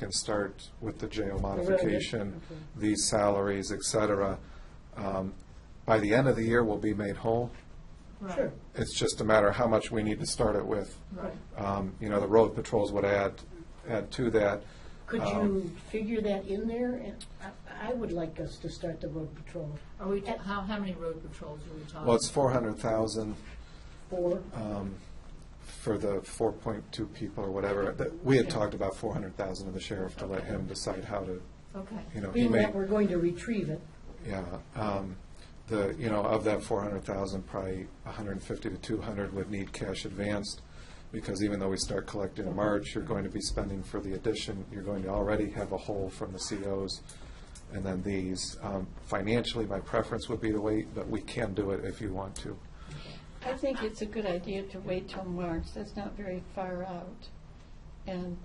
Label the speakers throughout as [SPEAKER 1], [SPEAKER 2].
[SPEAKER 1] can start with the jail modification,
[SPEAKER 2] okay.
[SPEAKER 1] these salaries, et cetera. Um, By the end of the year, we'll be made whole.
[SPEAKER 2] Sure,
[SPEAKER 1] It's just a matter of how much we need to start it with.
[SPEAKER 2] right.
[SPEAKER 1] Um, You know, the road patrols would add, add to that.
[SPEAKER 2] Could
[SPEAKER 1] Um,
[SPEAKER 2] you figure that in there? And I- I would like us to start the road patrol
[SPEAKER 3] Are we, ta- how, how many road patrols are we talking?
[SPEAKER 1] Well, it's four hundred thousand
[SPEAKER 2] for,
[SPEAKER 1] Uh, for the four point two people or whatever. That- We had talked about four hundred thousand of the sheriff to let him decide how to,
[SPEAKER 3] Okay.
[SPEAKER 1] you know, he
[SPEAKER 2] being
[SPEAKER 1] may.
[SPEAKER 2] that we're going to retrieve it.
[SPEAKER 1] Yeah, um, the, you know, of that four hundred thousand, probably hundred and fifty to two hundred would need cash advanced, because even though we start collecting in March, you're going to be spending for the addition, you're going to already have a hole from the COs, and then these. Um, Financially, my preference would be to wait, but we can do it if you want to.
[SPEAKER 4] I think it's a good idea to wait till March, that's not very far out. And,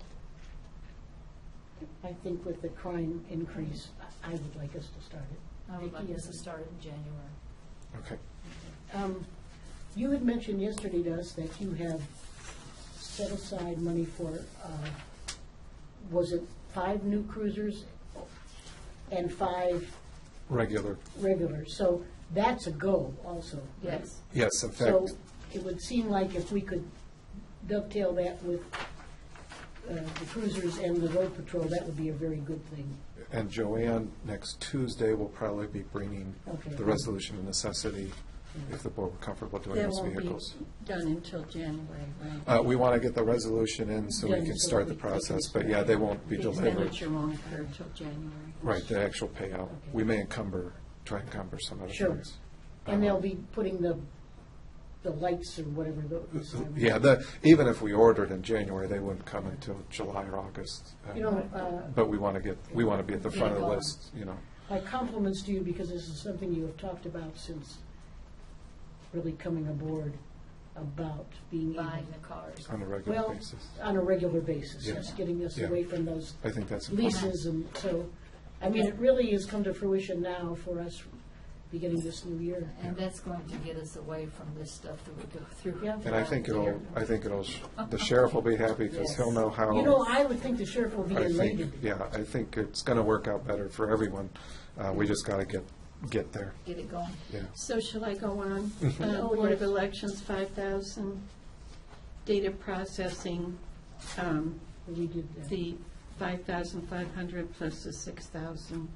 [SPEAKER 2] I think with the crime increase, I I would like us to start it.
[SPEAKER 3] I would like
[SPEAKER 2] Vicki,
[SPEAKER 3] this to
[SPEAKER 2] is-
[SPEAKER 3] start in January.
[SPEAKER 1] Okay.
[SPEAKER 2] Um, You had mentioned yesterday to us that you have set aside money for, uh, was it five new cruisers and five
[SPEAKER 1] Regular,
[SPEAKER 2] regulars? So that's a go also.
[SPEAKER 3] Yes.
[SPEAKER 1] yes, in
[SPEAKER 2] So
[SPEAKER 1] fact,
[SPEAKER 2] it would seem like if we could dovetail that with uh, the cruisers and the road patrol, that would be a very good thing.
[SPEAKER 1] and Joanne, next Tuesday, will probably be bringing
[SPEAKER 2] Okay.
[SPEAKER 1] the resolution of necessity, if the board were comfortable doing
[SPEAKER 4] that
[SPEAKER 1] those
[SPEAKER 4] won't be
[SPEAKER 1] vehicles.
[SPEAKER 4] done until January, right?
[SPEAKER 1] Uh, We want to get the resolution in so we
[SPEAKER 2] Yeah,
[SPEAKER 1] can
[SPEAKER 2] so
[SPEAKER 1] start
[SPEAKER 2] we-
[SPEAKER 1] the
[SPEAKER 2] we can
[SPEAKER 1] process, but
[SPEAKER 2] start.
[SPEAKER 1] yeah, they won't be
[SPEAKER 4] The
[SPEAKER 1] delivered.
[SPEAKER 4] expenditure won't occur till January.
[SPEAKER 1] Right, the actual payout. We may encumber, try and encumber some other
[SPEAKER 2] Sure.
[SPEAKER 1] things.
[SPEAKER 2] And they'll be putting the, the lights or whatever those.
[SPEAKER 1] Um, Yeah, the, even if we ordered in January, they wouldn't come until July or August. uh,
[SPEAKER 2] You know, uh,
[SPEAKER 1] But we want to get, we want to be at the front of the
[SPEAKER 3] Yeah.
[SPEAKER 1] list, you know.
[SPEAKER 2] my compliments to you because this is something you have talked about since really coming aboard about being able.
[SPEAKER 3] Buying the cars.
[SPEAKER 1] on a regular
[SPEAKER 2] Well,
[SPEAKER 1] basis.
[SPEAKER 2] on a regular basis,
[SPEAKER 1] Yeah.
[SPEAKER 2] yes, getting us
[SPEAKER 1] Yeah.
[SPEAKER 2] away from those
[SPEAKER 1] I think that's important.
[SPEAKER 2] leases and so, I mean, it really has come to fruition now for us beginning this new year.
[SPEAKER 3] And that's going to get us away from this stuff that we go through.
[SPEAKER 2] Yeah.
[SPEAKER 1] And I think it'll, I think it'll, sh- the sheriff will be happy because he'll know how.
[SPEAKER 2] You know, I would think the sheriff will be
[SPEAKER 1] Oh. I think,
[SPEAKER 2] elated.
[SPEAKER 1] yeah, I think it's going to work out better for everyone. Uh, We just got to get, get there,
[SPEAKER 3] Get it going.
[SPEAKER 1] yeah.
[SPEAKER 4] So shall I go on? Uh,
[SPEAKER 2] Oh,
[SPEAKER 4] Board of
[SPEAKER 2] yes.
[SPEAKER 4] Elections, five thousand, data processing, um,
[SPEAKER 2] We did that.
[SPEAKER 4] the five thousand five hundred plus the six thousand.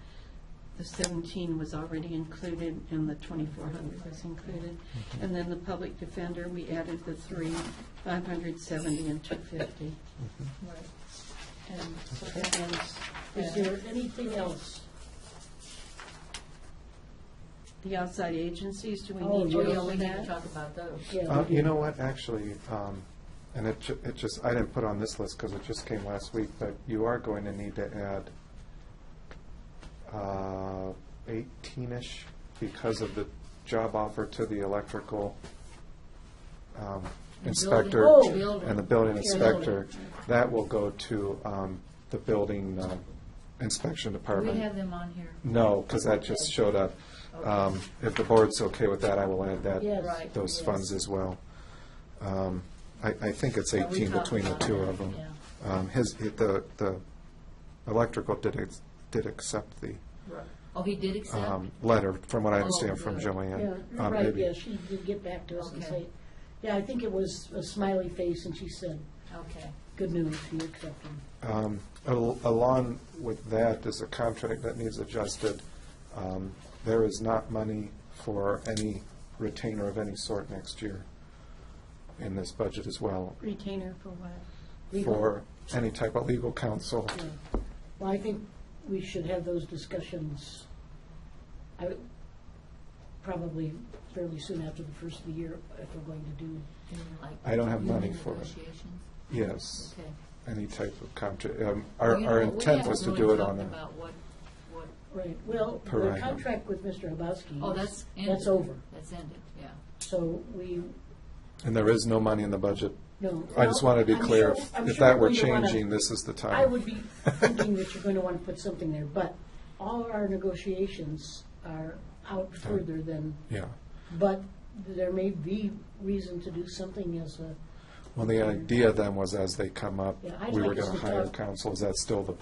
[SPEAKER 4] The seventeen was already included and the twenty-four hundred was included. And then the public defender, we added the three, five hundred seventy and two fifty.
[SPEAKER 3] Right.
[SPEAKER 4] And so that ends
[SPEAKER 2] Is
[SPEAKER 4] that.
[SPEAKER 2] there anything else?
[SPEAKER 1] Uh,
[SPEAKER 4] the outside agencies, do we
[SPEAKER 2] Oh,
[SPEAKER 4] need
[SPEAKER 3] Oh,
[SPEAKER 4] to
[SPEAKER 3] yeah,
[SPEAKER 4] go
[SPEAKER 3] we
[SPEAKER 4] with
[SPEAKER 3] need to
[SPEAKER 4] that?
[SPEAKER 3] talk about those.
[SPEAKER 2] Yeah,
[SPEAKER 1] Uh,
[SPEAKER 2] we
[SPEAKER 1] You
[SPEAKER 2] did.
[SPEAKER 1] know what, actually, um, and it, ju- it just, I didn't put on this list because it just came last week, but you are going to need to add uh, 18-ish because of the job offer to the electrical um, inspector
[SPEAKER 2] Oh.
[SPEAKER 1] and the building
[SPEAKER 2] Yeah.
[SPEAKER 1] inspector. That will go to um, the building um, inspection
[SPEAKER 3] Do
[SPEAKER 1] department.
[SPEAKER 3] we have them on here?
[SPEAKER 1] No, because that just showed up. Um, If the board's okay with that, I will add that,
[SPEAKER 2] Yes.
[SPEAKER 3] Right,
[SPEAKER 1] those
[SPEAKER 3] yes.
[SPEAKER 1] funds as well. Um, I, I think it's
[SPEAKER 3] Yeah, we
[SPEAKER 1] 18
[SPEAKER 3] talked
[SPEAKER 1] between the
[SPEAKER 3] about
[SPEAKER 1] two
[SPEAKER 3] that,
[SPEAKER 1] of them.
[SPEAKER 3] yeah.
[SPEAKER 1] Um, His, he- the, the electrical did, ex- did accept the
[SPEAKER 3] Right. Oh, he did accept?
[SPEAKER 1] um, letter, from
[SPEAKER 3] Oh,
[SPEAKER 1] what I understand from
[SPEAKER 3] good.
[SPEAKER 2] Yeah,
[SPEAKER 1] Joanne. Uh,
[SPEAKER 2] right,
[SPEAKER 1] maybe-
[SPEAKER 2] yeah, she did get back to us and
[SPEAKER 3] Okay.
[SPEAKER 2] say, yeah, I think it was a smiley face and she said,
[SPEAKER 3] Okay.
[SPEAKER 2] good news, you're accepting.
[SPEAKER 1] Um, al- Along with that is a contract that needs adjusted. Um, There is not money for any retainer of any sort next year in this budget as well,
[SPEAKER 4] Retainer for what?
[SPEAKER 2] Legal.
[SPEAKER 1] for any type of legal counsel.
[SPEAKER 2] Yeah. Well, I think we should have those discussions, I, would- probably fairly soon after the first of the year, if we're going to do.
[SPEAKER 3] You mean like
[SPEAKER 1] I don't have money
[SPEAKER 3] union
[SPEAKER 1] for it.
[SPEAKER 3] negotiations?
[SPEAKER 1] Yes,
[SPEAKER 3] Okay.
[SPEAKER 1] any type of contract. Um,
[SPEAKER 3] Well,
[SPEAKER 1] Our
[SPEAKER 3] you know
[SPEAKER 1] our
[SPEAKER 3] what, we
[SPEAKER 1] intent
[SPEAKER 3] haven't
[SPEAKER 1] was to
[SPEAKER 3] really
[SPEAKER 1] do it
[SPEAKER 3] talked
[SPEAKER 1] on, a-
[SPEAKER 3] about what- what-
[SPEAKER 2] Right, well,
[SPEAKER 1] Per
[SPEAKER 2] the
[SPEAKER 1] item.
[SPEAKER 2] contract with Mr. Habowski.
[SPEAKER 3] oh,
[SPEAKER 2] is-
[SPEAKER 3] that's ended.
[SPEAKER 2] That's over,
[SPEAKER 3] That's ended, yeah.
[SPEAKER 2] so we,
[SPEAKER 1] and there is no money in the budget.
[SPEAKER 2] no.
[SPEAKER 1] I just
[SPEAKER 2] well,
[SPEAKER 1] wanted to be
[SPEAKER 2] I'm
[SPEAKER 1] clear,
[SPEAKER 2] sure-
[SPEAKER 1] if-
[SPEAKER 2] I'm
[SPEAKER 1] if
[SPEAKER 2] sure
[SPEAKER 1] that
[SPEAKER 2] we're
[SPEAKER 1] were
[SPEAKER 2] going to wanna-
[SPEAKER 1] changing, this is the time.
[SPEAKER 2] I would be thinking that you're going to want to put something there, but all our negotiations are out further than,
[SPEAKER 1] Yeah.
[SPEAKER 2] but there may be reason to do something as a
[SPEAKER 1] Well, the idea then was as they come up,
[SPEAKER 2] Yeah, I'd
[SPEAKER 1] we
[SPEAKER 2] like
[SPEAKER 1] were
[SPEAKER 2] us
[SPEAKER 1] going to
[SPEAKER 2] to
[SPEAKER 1] hire
[SPEAKER 2] talk-
[SPEAKER 1] counsel. Is that still the